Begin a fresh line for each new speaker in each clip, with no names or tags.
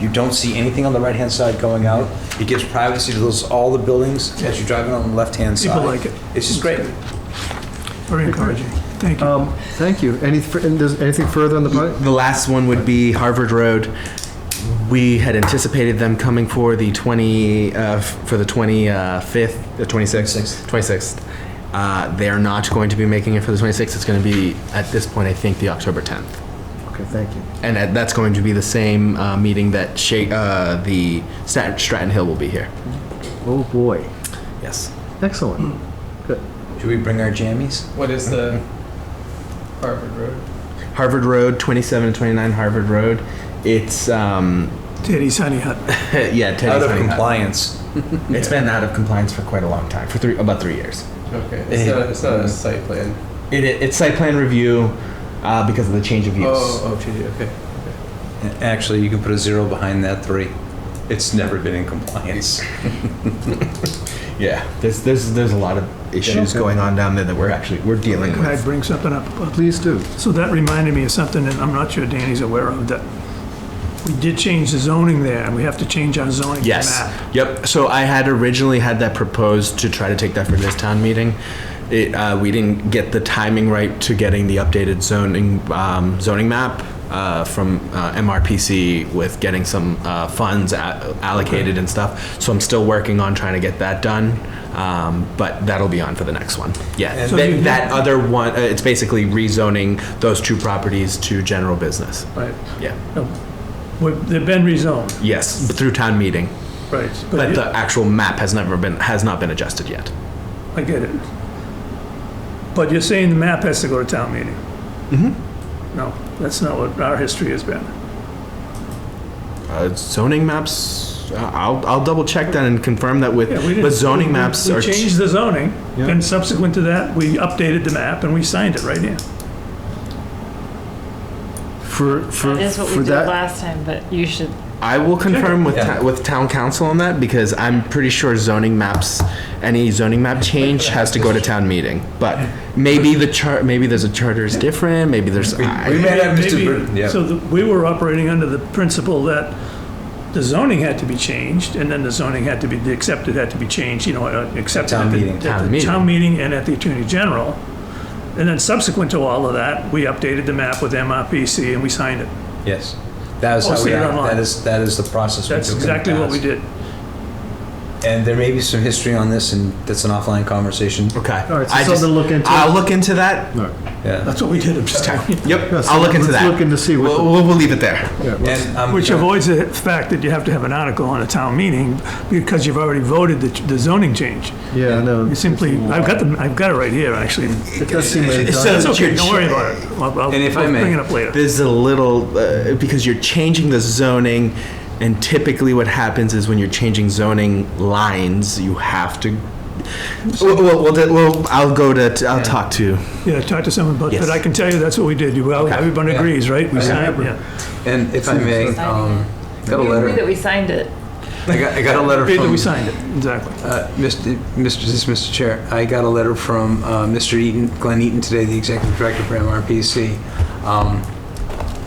You don't see anything on the right-hand side going out. It gives privacy to those, all the buildings as you're driving on the left-hand side.
People like it.
It's just great.
Very encouraging. Thank you.
Um, Thank you. Any, fr- and does- anything further on the project?
The last one would be Harvard Road. We had anticipated them coming for the 20, uh, f- for the 25th, the 26th? 26th. Uh, They are not going to be making it for the 26th. It's going to be, at this point, I think, the October 10th.
Okay, thank you.
And that- that's going to be the same uh, meeting that Sha- uh, the Stat- Stratton Hill will be here.
Oh, boy.
Yes.
Excellent. Good.
Should we bring our jammies?
What is the Harvard Road?
Harvard Road, 27 and 29 Harvard Road. It's, um,
Teddy's Honey Hut.
yeah, Teddy's
Out of
Honey Hut.
compliance.
It's been out of compliance for quite a long time, for three, about three years.
Okay, it's not, it's not a site plan.
It, it, it's site plan review uh, because of the change of use.
Oh, oh, gee, okay.
Actually, you can put a zero behind that three. It's never been in compliance.
Yeah, there's there's there's a lot of issues going on down there that we're actually we're dealing
Can I
with.
bring something up? about-
Please do.
So that reminded me of something, and I'm not sure Danny's aware of, that we did change the zoning there, and we have to change our zoning
Yes.
map.
Yep. So I had originally had that proposed to try to take that for this town meeting. It, uh, we didn't get the timing right to getting the updated zoning um, zoning map uh, from uh, MRPC with getting some uh, funds a- allocated and stuff. So I'm still working on trying to get that done. Um, but that'll be on for the next one. Yeah.
And-
So
That-
you-
that other one, uh, it's basically rezoning those two properties to general business.
Right.
Yeah.
Well, They've been rezoned,
Yes, through town meeting.
right.
But
you-
the actual map has never been, has not been adjusted yet.
I get it. But you're saying the map has to go to town meeting? Mm-hmm.
Mm-hmm.
No, that's not what our history has been.
Uh, zoning maps, uh, I'll, I'll double check that and confirm that with,
Yeah, we didn't-
but zoning
we-
maps
we
are.
changed the zoning, and subsequent to that, we updated the map and we signed it right here.
For, for,
That is what we
for
did
that,
last time, but you should,
I will confirm with,
Yeah.
ta- with town council on that because I'm pretty sure zoning maps, any zoning map change has to go to town meeting. But maybe the chart, maybe there's a charter is different, maybe there's.
We
I-
may have Mr.
Maybe-
Britton, yeah.
So the- we were operating under the principle that the zoning had to be changed, and then the zoning had to be, the accepted had to be changed, you know, uh, accepted.
Town
at the-
meeting.
at
Town
the
meeting.
Town meeting and at the Attorney General. And then subsequent to all of that, we updated the map with MRPC and we signed it.
Yes. That is
I'll
how
see
we,
it
act.
Oh, online.
that is, that is the process. we
That's
took in the
exactly what we
past.
did.
And there may be some history on this and that's an offline conversation.
Okay.
All right, so
I just-
something to look into.
I'll look into that.
Yeah.
That's what we did, I'm just telling you.
Yep,
Yes,
I'll look into
let's
that.
look into see what
We'll,
the-
we'll, we'll leave it there.
yeah, let's-
And um, I'm.
Which avoids the fact that you have to have an article on a town meeting because you've already voted the the zoning change.
yeah, I know.
You simply, I've got the, I've got it right here, actually.
It does seem like
It
it's
says-
It's okay, don't worry about it. I'll- I'll-
And if I
I'll
may,
Bring it up later.
There's a little, uh, because you're changing the zoning, and typically what happens is when you're changing zoning lines, you have to. Well, well, well, that- well, I'll go to, I'll talk to.
Yeah, talk to someone, but, but I can tell you that's what we did. You- Well, everyone
Yeah.
agrees, right? We signed, yeah.
And if I may, um, got a
you agree that
letter,
we signed it.
I got, I got a letter
Agree that
from.
we signed it, exactly.
Uh, Mr. Mr. this is Mr. Chair, I got a letter from uh, Mr. Eaton, Glenn Eaton today, the Executive Director for MRPC. Um,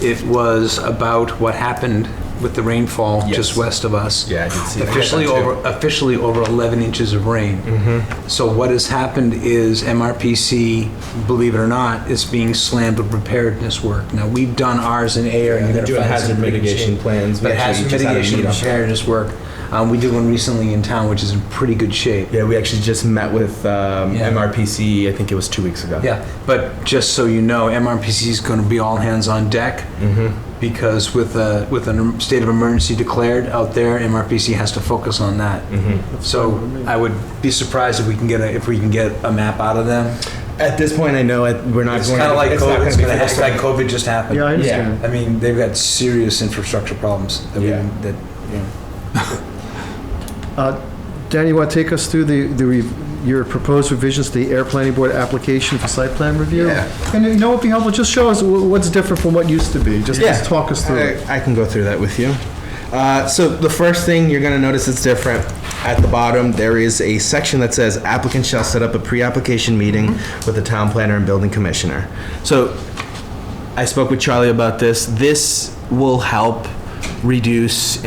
It was about what happened with the rainfall just
Yes.
west of us.
Yeah, I did see that.
Officially
Yeah, that too.
over, officially over 11 inches of rain.
Mm-hmm.
So what has happened is MRPC, believe it or not, is being slammed with preparedness work. Now, we've done ours in air, and you're going to find some pretty good shape.
plans.
But hazard mitigation and preparedness work, um, we did one recently in town, which is in pretty good shape.
Yeah, we actually just met with um,
Yeah.
MRPC, I think it was two weeks ago.
Yeah, but just so you know, MRPC is going to be all hands on deck
Mm-hmm.
because with a with a state of emergency declared out there, MRPC has to focus on that.
Mm-hmm.
So I would be surprised if we can get a, if we can get a map out of them.
At this point, I know it- we're not
It's
going.
kind of like
it's not
COVID. It's,
gonna
gonna
be
it's
fixed.
like COVID just happened.
Yeah, I understand.
I mean, they've got serious infrastructure problems that
Yeah.
we that you know.
Uh, Danny, you want to take us through the, the, re- your proposed revisions to the air planning board application for site plan review?
Yeah.
And you know what would be helpful, just show us wh- what's different from what used to be, just just talk us through it.
I, I can go through that with you. Uh, so the first thing you're going to notice is different. At the bottom, there is a section that says applicant shall set up a pre-application meeting with the town planner and building commissioner. So I spoke with Charlie about this. This will help reduce